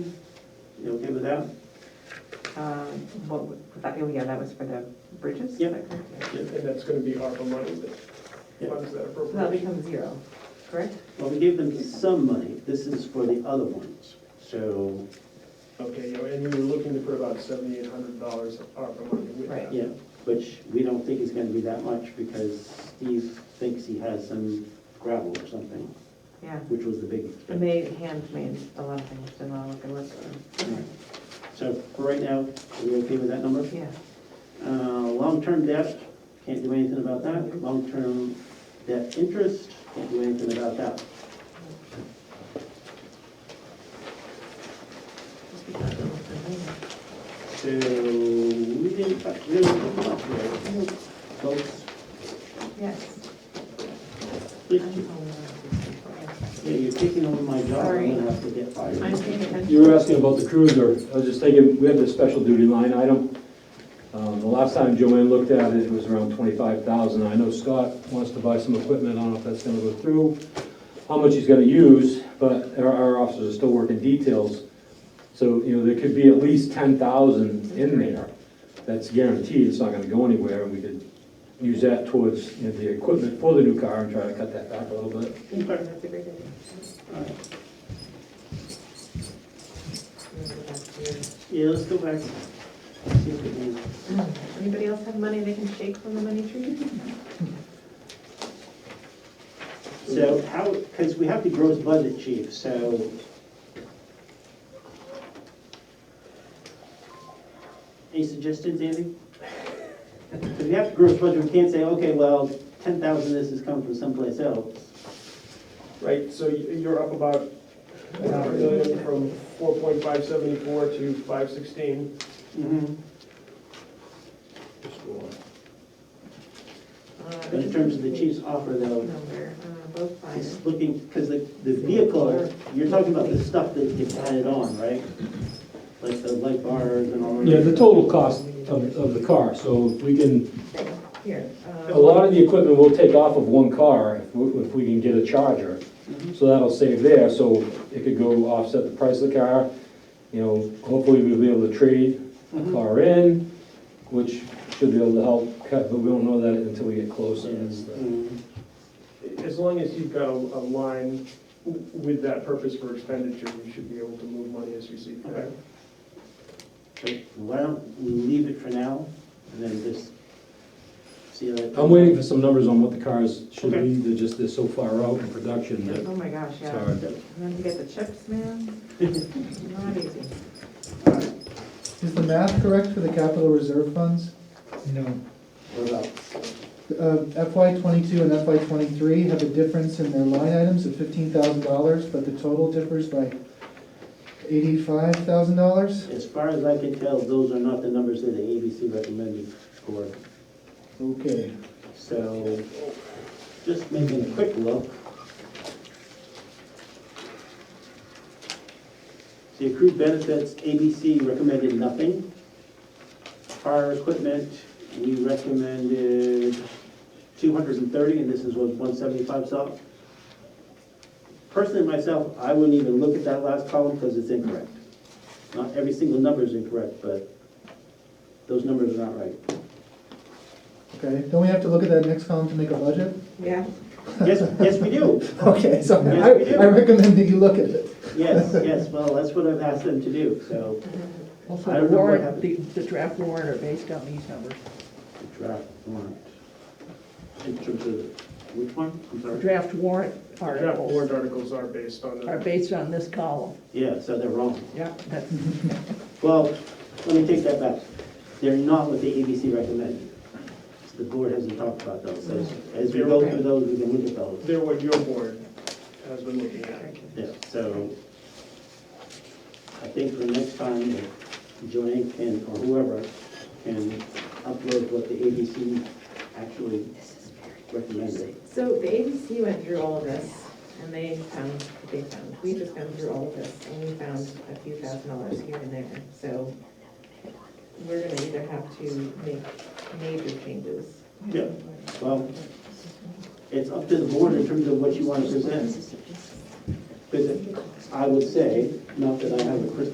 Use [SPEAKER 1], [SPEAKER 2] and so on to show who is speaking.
[SPEAKER 1] You okay with that?
[SPEAKER 2] Um, What, was that, oh, yeah, that was for the bridges?
[SPEAKER 1] Yeah.
[SPEAKER 2] Okay.
[SPEAKER 3] And that's gonna be ARPA money that
[SPEAKER 1] Yeah.
[SPEAKER 3] funds that
[SPEAKER 2] So that
[SPEAKER 3] appropriation.
[SPEAKER 2] becomes zero, correct?
[SPEAKER 1] Well, we gave them some money, this is for the other ones, so,
[SPEAKER 3] Okay, you know, and you were looking for about seventy-eight hundred dollars of ARPA money with
[SPEAKER 2] Right.
[SPEAKER 3] that.
[SPEAKER 1] yeah, which we don't think is gonna be that much, because Steve thinks he has some gravel or something,
[SPEAKER 2] Yeah.
[SPEAKER 1] which was the big
[SPEAKER 2] The
[SPEAKER 1] expense.
[SPEAKER 2] maid, hand made a lot of things, and I'll look and look for them.
[SPEAKER 1] So for right now, are we okay with that number?
[SPEAKER 2] Yeah,
[SPEAKER 1] Uh, Long-term debt, can't do anything about that. Long-term debt interest, can't do anything about that.
[SPEAKER 2] just because I don't look for them.
[SPEAKER 1] So we didn't touch really much there. Folks,
[SPEAKER 2] Yes.
[SPEAKER 1] please,
[SPEAKER 2] I'm following up.
[SPEAKER 1] yeah, you're taking over my job. I'm gonna
[SPEAKER 2] Sorry.
[SPEAKER 1] have to get fired.
[SPEAKER 2] I'm paying attention.
[SPEAKER 4] You were asking about the cruiser. I was just thinking, we have the special duty line item. Um, The last time Joanne looked at it, it was around twenty-five thousand. I know Scott wants to buy some equipment. I don't know if that's gonna go through, how much he's gonna use, but our, our officers are still working details. So, you know, there could be at least ten thousand in there. That's guaranteed. It's not gonna go anywhere, and we could use that towards, you know, the equipment for the new car and try to cut that back a little bit.
[SPEAKER 2] That's a great idea.
[SPEAKER 1] All right.
[SPEAKER 2] We'll go back to you.
[SPEAKER 1] Yeah, let's go back. See if we can-
[SPEAKER 2] Anybody else have money they can shake from the money tree?
[SPEAKER 1] So how, because we have the gross budget, chief, so. Any suggestions, Andy? Because we have the gross budget, we can't say, okay, well, ten thousand of this is coming from someplace else.
[SPEAKER 3] Right, so you- you're up about a half a million from four point five seventy-four to five sixteen.
[SPEAKER 1] But
[SPEAKER 2] Uh,
[SPEAKER 1] in terms of the chief's offer though,
[SPEAKER 2] Number, uh, both sides.
[SPEAKER 1] it's looking, because the, the vehicle, you're talking about the stuff that gets added on, right? Like the light bars and all.
[SPEAKER 4] Yeah, the total cost of, of the car, so if we can
[SPEAKER 2] Here. uh,
[SPEAKER 4] A lot of the equipment we'll take off of one car if we- if we can get a charger,
[SPEAKER 1] Mhm.
[SPEAKER 4] so that'll save there, so it could go offset the price of the car. You know, hopefully we'll be able to trade a
[SPEAKER 1] Mhm.
[SPEAKER 4] car in, which should be able to help cut, but we don't know that until we get closer. That's the-
[SPEAKER 1] Mm.
[SPEAKER 3] As long as you've got a, a line w- with that purpose for expenditure, you should be able to move money as you see fit.
[SPEAKER 1] Okay. Okay, Why don't we leave it for now, and then just see how that.
[SPEAKER 4] I'm waiting for some numbers on what the cars should
[SPEAKER 1] Okay.
[SPEAKER 4] be, they're just, they're so far out in production that
[SPEAKER 2] Oh my gosh,
[SPEAKER 4] it's
[SPEAKER 2] yeah.
[SPEAKER 4] hard.
[SPEAKER 2] And then you get the chips, man. Not easy.
[SPEAKER 5] Is the math correct for the capital reserve funds? No.
[SPEAKER 1] What about,
[SPEAKER 5] FY twenty-two and FY twenty-three have a difference in their line items of fifteen thousand dollars, but the total differs by eighty-five thousand dollars?
[SPEAKER 1] as far as I can tell, those are not the numbers that the ABC recommended for,
[SPEAKER 5] Okay.
[SPEAKER 1] so just making a quick look. The accrued benefits, ABC recommended nothing. Fire equipment, we recommended two hundred and thirty, and this is what one seventy-five saw. Personally, myself, I wouldn't even look at that last column because it's incorrect. Not every single number is incorrect, but those numbers are not right.
[SPEAKER 5] Okay, don't we have to look at that next column to make a budget?
[SPEAKER 2] Yeah.
[SPEAKER 1] Yes, yes, we do.
[SPEAKER 5] Okay, so
[SPEAKER 1] Yes, we do.
[SPEAKER 5] I, I recommend that you look at it.
[SPEAKER 1] Yes, yes, well, that's what I've asked them to do, so.
[SPEAKER 6] Also,
[SPEAKER 1] I
[SPEAKER 6] the
[SPEAKER 1] don't know what
[SPEAKER 6] warrant, the,
[SPEAKER 1] happened.
[SPEAKER 6] the draft warrant are based on these numbers.
[SPEAKER 1] Draft warrant. In terms of, which one? I'm
[SPEAKER 6] The
[SPEAKER 1] sorry.
[SPEAKER 6] draft warrant
[SPEAKER 3] Draft
[SPEAKER 6] articles
[SPEAKER 3] warrant articles are based on
[SPEAKER 6] are
[SPEAKER 3] the,
[SPEAKER 6] based on this column.
[SPEAKER 1] Yeah, so they're wrong.
[SPEAKER 6] Yeah, that's,
[SPEAKER 1] Well, let me take that back. They're not what the ABC recommended. The board hasn't talked about those. So As we go through those, we can look at those.
[SPEAKER 3] they're what your board has been looking at.
[SPEAKER 1] Yeah, so I think for next time, if Joanne can, or whoever, can upload what the ABC actually recommended.
[SPEAKER 2] So the ABC went through all of this, and they found what they found. We just went through all of this, and we found a few thousand dollars here and there. So we're gonna either have to make major changes.
[SPEAKER 1] Yeah, well, it's up to the board in terms of what you want to present. Because I would say, not that I have a crystal